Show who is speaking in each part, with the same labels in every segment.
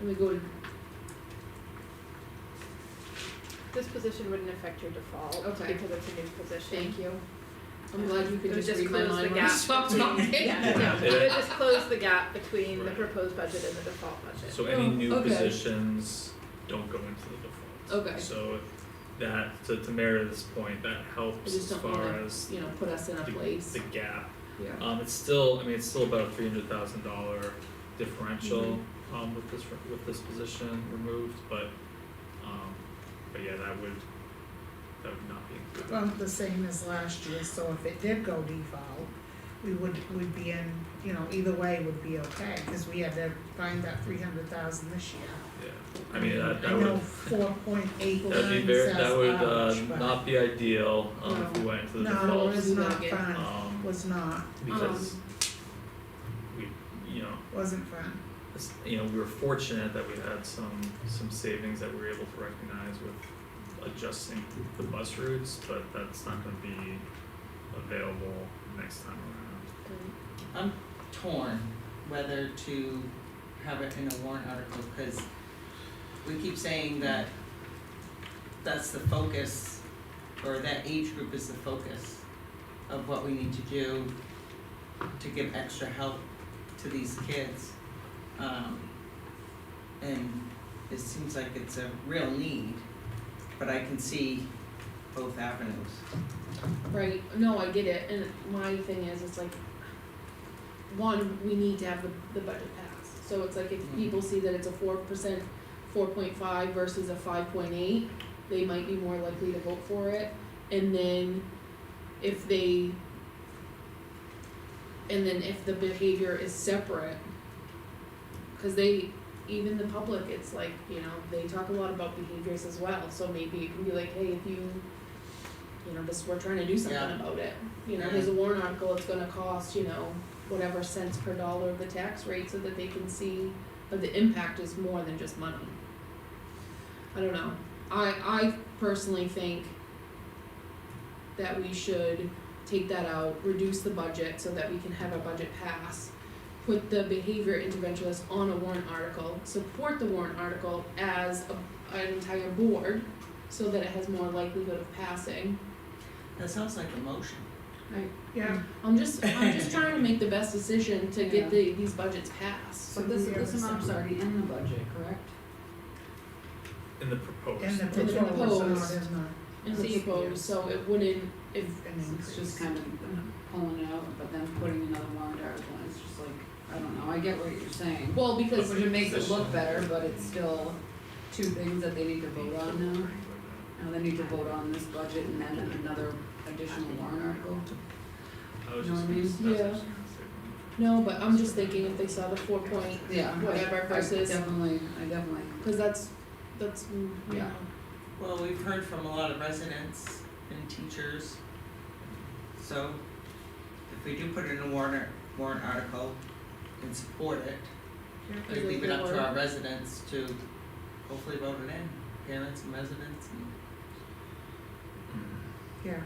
Speaker 1: And we go to. This position wouldn't affect your default
Speaker 2: Okay.
Speaker 1: because it's a new position.
Speaker 2: Thank you.
Speaker 1: I'm glad you
Speaker 2: It
Speaker 1: could
Speaker 2: would
Speaker 1: just read my mind. when I
Speaker 2: just
Speaker 1: stopped
Speaker 2: close the gap
Speaker 1: talking.
Speaker 2: between,
Speaker 1: Yeah,
Speaker 2: yeah,
Speaker 1: yeah,
Speaker 3: Yeah.
Speaker 1: it would just close the gap between the
Speaker 3: Right.
Speaker 1: proposed budget and the default budget.
Speaker 3: So any
Speaker 2: Oh,
Speaker 3: new
Speaker 2: okay.
Speaker 3: positions don't go into the default.
Speaker 2: Okay.
Speaker 3: So that, to to Meredith's point, that
Speaker 2: I
Speaker 3: helps
Speaker 2: just
Speaker 3: as
Speaker 2: don't
Speaker 3: far
Speaker 2: wanna,
Speaker 3: as
Speaker 2: you know, put us in a
Speaker 3: the
Speaker 2: place,
Speaker 3: the gap.
Speaker 2: yeah,
Speaker 3: Um, it's still, I mean, it's still about a three hundred thousand dollar differential, um, with this, with this position removed, but, um, but yeah, that would, that would not be included.
Speaker 4: Well, the same as last year, so if it did go default, we would, would be in, you know, either way would be okay, cause we had to find that three hundred thousand this year.
Speaker 3: Yeah, I mean, that, that
Speaker 4: I know
Speaker 3: would,
Speaker 4: four point eight nine
Speaker 3: that'd be very,
Speaker 4: sounds
Speaker 3: that would, uh,
Speaker 4: large, but
Speaker 3: not be ideal, um, if we went into the default.
Speaker 4: No, it was
Speaker 2: Do that
Speaker 4: not
Speaker 2: again.
Speaker 5: uh,
Speaker 4: fun,
Speaker 3: Um,
Speaker 4: was not,
Speaker 3: because we, you know,
Speaker 4: wasn't fun,
Speaker 3: s- you know, we were fortunate that we had some, some savings that we were able to recognize with adjusting the bus routes, but that's not gonna be available next time around.
Speaker 6: I'm torn whether to have it in a warrant article, cause we keep saying that that's the focus, or that age group is the focus of what we need to do to give extra help to these kids. Um, and it seems like it's a real need, but I can see both avenues.
Speaker 2: right, no, I get it, and my thing is, it's like, one, we need to have the, the budget passed, so it's like if
Speaker 3: Mm-hmm.
Speaker 6: Mhm.
Speaker 2: people see that it's a four percent, four point five versus a five point eight, they might be more likely to vote for it, and then if they and then if the behavior is separate, cause they, even the public, it's like, you know, they talk a lot about behaviors as well, so maybe it can be like, hey, if you, you know, this, we're trying to do something
Speaker 6: Yeah.
Speaker 2: about it, you know, there's a warrant article, it's gonna cost, you know, whatever cents per dollar of the tax rate, so that they can see that the impact is more than just money. I don't know, I, I personally think that we should take that out, reduce the budget so that we can have a budget pass. Put the behavior intervention list on a warrant article, support the warrant article as a, an entire board so that it has more likelihood of passing.
Speaker 6: That sounds like a motion.
Speaker 4: yeah,
Speaker 2: I'm just, I'm just trying to make the best decision to get the, these budgets passed.
Speaker 5: So this,
Speaker 4: Yeah.
Speaker 5: this amount's already in the budget, correct?
Speaker 3: In the proposed.
Speaker 4: and the
Speaker 2: And the
Speaker 4: proposal
Speaker 2: proposed.
Speaker 4: is not
Speaker 2: And the
Speaker 5: See,
Speaker 2: proposed, so it wouldn't, if,
Speaker 4: an increase.
Speaker 5: It's just kind of pulling it out, but then putting another warrant article, in. it's just like, I don't know, I get what you're saying.
Speaker 2: well, because,
Speaker 5: Which it makes it look better, but it's still two things that they need to vote on now. Now they need to vote on this budget and then another additional warrant article.
Speaker 3: I was
Speaker 5: Know what
Speaker 3: just
Speaker 5: I
Speaker 3: gonna,
Speaker 5: mean?
Speaker 3: that's what I
Speaker 2: Yeah.
Speaker 3: was gonna
Speaker 2: no, but I'm just thinking if they saw the four point,
Speaker 5: Yeah. I-
Speaker 2: Whatever
Speaker 5: I
Speaker 2: versus-
Speaker 5: Definitely, I definitely,
Speaker 2: cause that's, that's, mm, you
Speaker 5: Yeah.
Speaker 2: know,
Speaker 6: Well, we've heard from a lot of residents and teachers. So if we do put in a warrant, warrant article and support it, we
Speaker 2: Is it
Speaker 6: leave it up
Speaker 2: your-
Speaker 6: to our residents to hopefully vote it in, parents and residents. and
Speaker 3: Hmm.
Speaker 4: Yeah,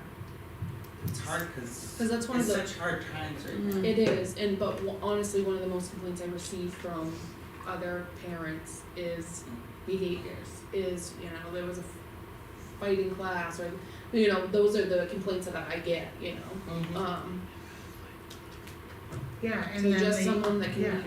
Speaker 6: It's hard because
Speaker 2: cause that's one of
Speaker 6: it's
Speaker 2: the. Mm-hmm.
Speaker 6: such hard times right now.
Speaker 2: It is, and but w- honestly, one of the most complaints I receive from other parents is behaviors. Is you know there was a f- fighting class, or you know those are the complaints that I get. You know,
Speaker 6: Mhm.
Speaker 2: um,
Speaker 4: yeah, and
Speaker 2: so
Speaker 4: then
Speaker 2: just
Speaker 4: they-
Speaker 2: someone that can.
Speaker 4: yeah.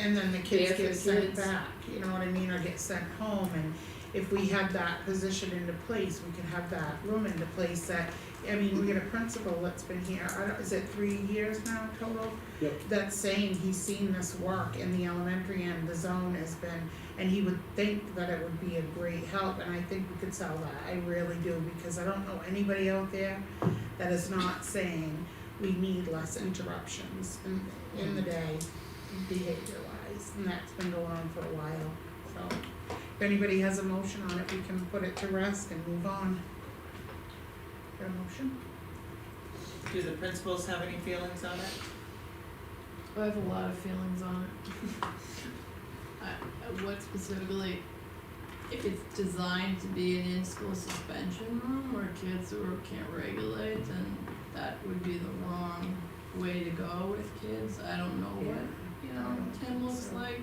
Speaker 4: And then the kids
Speaker 2: There for
Speaker 4: get
Speaker 2: the
Speaker 4: sent
Speaker 2: kids.
Speaker 4: back, you know what I mean, or get sent home, and if we had that position into place, we could have that room into place that, I mean, we got a principal that's been here, I don't, is it three years now total?
Speaker 7: Yep.
Speaker 4: That's saying he's seen this work in the elementary and the zone has been, and he would think that it would be a great help, and I think we could sell that, I really do, because I don't know anybody out there that is not saying we need less interruptions in, in the day behavior wise, and that's been going on for a while, so. If anybody has a motion on it, we can put it to rest and move on. Your motion?
Speaker 6: Do the principals have any feelings on it?
Speaker 8: I have a lot of feelings on it. I- What specifically, if it's designed to be an in-school suspension room where kids who can't regulate, then that would be the wrong way to go with kids. I don't know what, you know, Um, Tim looks like.